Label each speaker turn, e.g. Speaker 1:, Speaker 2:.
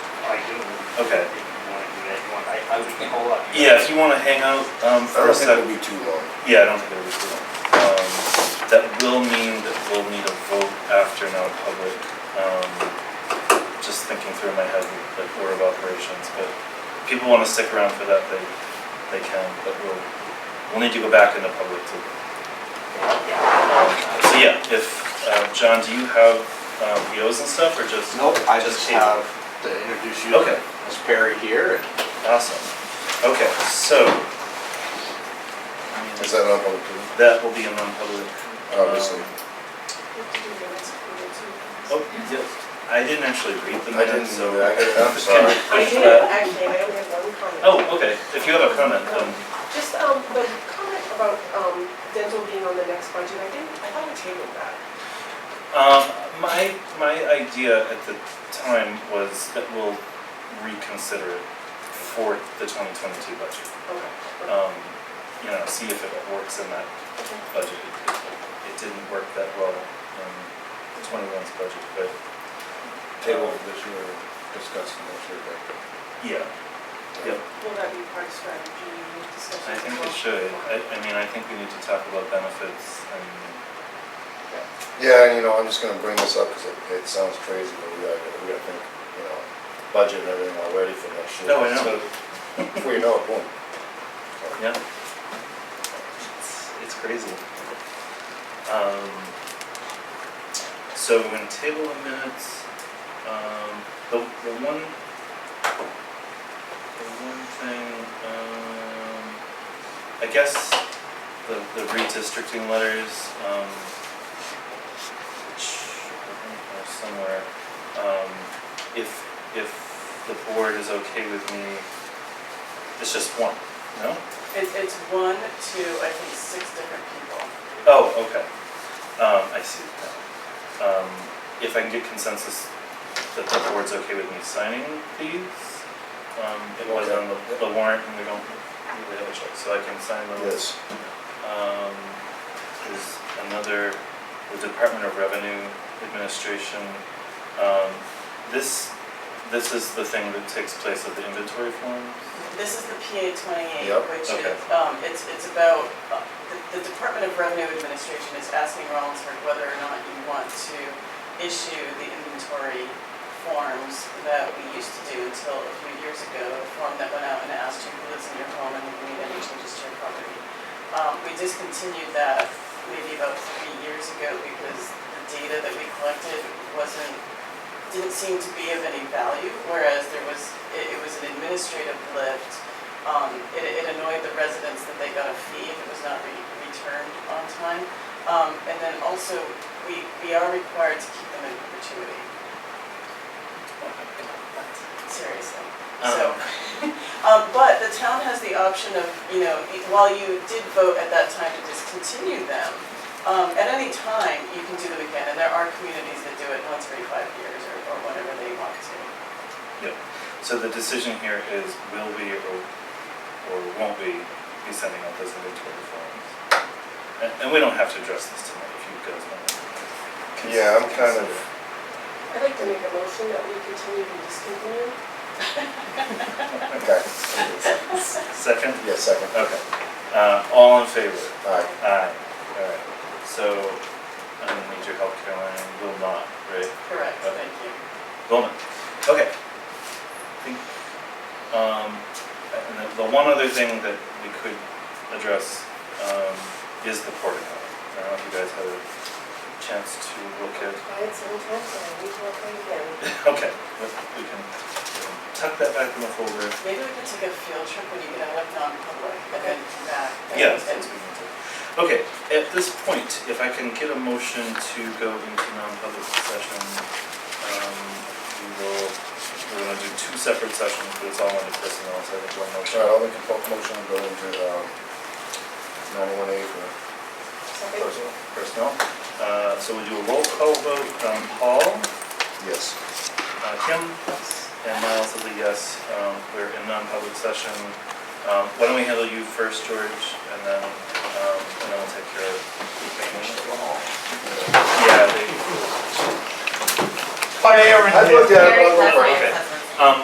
Speaker 1: Okay.
Speaker 2: You wanna do that, you want, I, I we can hold up.
Speaker 1: Yeah, if you wanna hang out, um,
Speaker 3: I
Speaker 1: for a
Speaker 3: don't think
Speaker 1: sec.
Speaker 3: it'll be too long.
Speaker 1: Yeah, I don't think it'll be too long. Um, that will mean that we'll need a vote after non-public. Um, just thinking through in my head, like order of operations, but if people wanna stick around for that, they, they can, but we'll, we'll need to go back into public too. Um,
Speaker 2: Yeah.
Speaker 1: So yeah, if, uh, John, do you have, um, POs and stuff, or just?
Speaker 4: Nope, I just
Speaker 1: Just table.
Speaker 4: have to introduce you.
Speaker 1: Okay.
Speaker 4: It's Perry here, and
Speaker 1: Awesome. Okay, so.
Speaker 3: Is that not open,
Speaker 1: That will be a non-public. um,
Speaker 3: obviously?
Speaker 1: Oh, yeah, I didn't actually read the
Speaker 3: I didn't,
Speaker 1: minutes, so.
Speaker 3: know that. I'm
Speaker 1: Just can
Speaker 3: sorry.
Speaker 1: we
Speaker 5: I
Speaker 1: push
Speaker 5: do,
Speaker 1: that?
Speaker 5: actually, I only have one comment.
Speaker 1: Oh, okay, if you have a comment, um,
Speaker 5: Just, um, the comment about, um, dental being on the next budget, I didn't, I thought we tabled that.
Speaker 1: um, my, my idea at the time was that we'll reconsider it for the twenty twenty-two budget.
Speaker 5: Okay.
Speaker 1: Um, you know, see if it works in that
Speaker 5: Okay.
Speaker 1: budget. It- it- It didn't work that well in twenty-one's budget, but um,
Speaker 3: Table for this year, discuss and make sure that.
Speaker 1: yeah, yep.
Speaker 5: Will that be part of strategy discussion?
Speaker 1: I think it should. I, I mean, I think we need to talk about benefits and,
Speaker 3: Yeah, and you know, I'm just gonna bring this up because it, it sounds crazy, but we gotta, we gotta think, you know, budget and everything already for next year.
Speaker 1: No, I know.
Speaker 3: So, Before you know it, boom.
Speaker 1: yeah. It's- It's crazy. Um, so we're gonna table the minutes. Um, the, the one, the one thing, um, I guess the, the redistricting letters, um, which I think are somewhere, um, if, if the board is okay with me, it's just one, no?
Speaker 6: It, it's one, two, I think six different people.
Speaker 1: Oh, okay. Um, I see. Um, if I can get consensus that the board's okay with me signing these, um, it was on the, the warrant and we don't really have a choice, so I can sign those.
Speaker 3: Yes,
Speaker 1: Um, there's another, the Department of Revenue Administration. Um, this, this is the thing that takes place at the inventory forms.
Speaker 6: This is the PA twenty-eight,
Speaker 3: Yep,
Speaker 6: which
Speaker 1: okay.
Speaker 6: is, um, it's, it's about, uh, the, the Department of Revenue Administration is asking Rollinsford whether or not you want to issue the inventory forms that we used to do until a few years ago, a form that went out and asked you who lives in your home and if you made any changes to your property. Um, we discontinued that maybe about three years ago because the data that we collected wasn't didn't seem to be of any value, whereas there was, it, it was an administrative lift. Um, it, it annoyed the residents that they got a fee if it was not re- returned on time. Um, and then also, we, we are required to keep them in perpetuity. Seriously. So, um, but the town has the option of, you know, while you did vote at that time to discontinue them, um, at any time, you can do them again, and there are communities that do it once every five years or, or whenever they want to.
Speaker 1: So the decision here is will we or, or won't we be sending out those inventory forms? And, and we don't have to address this tonight if you guys want. to cons-
Speaker 3: Yeah, I'm kind of-
Speaker 1: consider.
Speaker 5: I'd like to make a motion that we continue to discontinue.
Speaker 3: okay.
Speaker 1: Second?
Speaker 3: Yeah, second.
Speaker 1: Okay. Uh, all in favor?
Speaker 3: All right,
Speaker 1: Aye. Alright, so I don't need your help, Caroline, will not, right?
Speaker 6: Correct, thank you.
Speaker 1: Bowman. Okay. I think, um, and the- the one other thing that we could address, um, is the portico. I don't know if you guys had a chance to look at,
Speaker 5: Try it seven times, and I need to look at it again.
Speaker 1: okay, let- we can tuck that back in the folder.
Speaker 6: Maybe we could take a field trip when you get out of non-public and then come back. and-
Speaker 1: Yeah,
Speaker 6: and-
Speaker 1: that's what we can do. Okay, at this point, if I can get a motion to go into non-public session, um, we will, we're gonna do two separate sessions, but it's all under personnel, so I think one
Speaker 3: all
Speaker 1: motion.
Speaker 3: right, I'll make a po- motion to go into, um, ninety-one A for
Speaker 5: Second?
Speaker 3: personal.
Speaker 1: Personnel, uh, so we do a roll call vote, um, Paul,
Speaker 3: Yes.
Speaker 1: uh, Kim, and Miles is a yes, um, we're in non-public session. Um, why don't we handle you first, George, and then, um, and then we'll take care of. Yeah, they.
Speaker 3: I looked at it, but I was like,
Speaker 1: Okay, um,